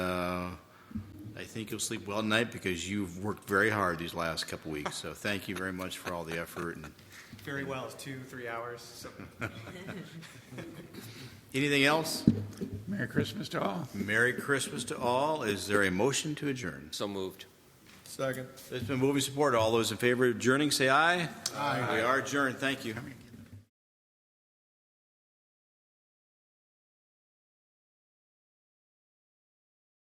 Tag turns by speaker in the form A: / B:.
A: Uh, think you'll sleep well tonight because you've worked very hard these last couple weeks. So thank you very much for all the effort. And
B: Very well, it's two, three hours, so.
A: anything else?
C: Merry Christmas to all.
A: Merry Christmas to all. Is there a motion to adjourn?
D: So moved.
A: It's been moving support. All those in favor of adjourning, say aye. Aye. We are adjourned. Thank you.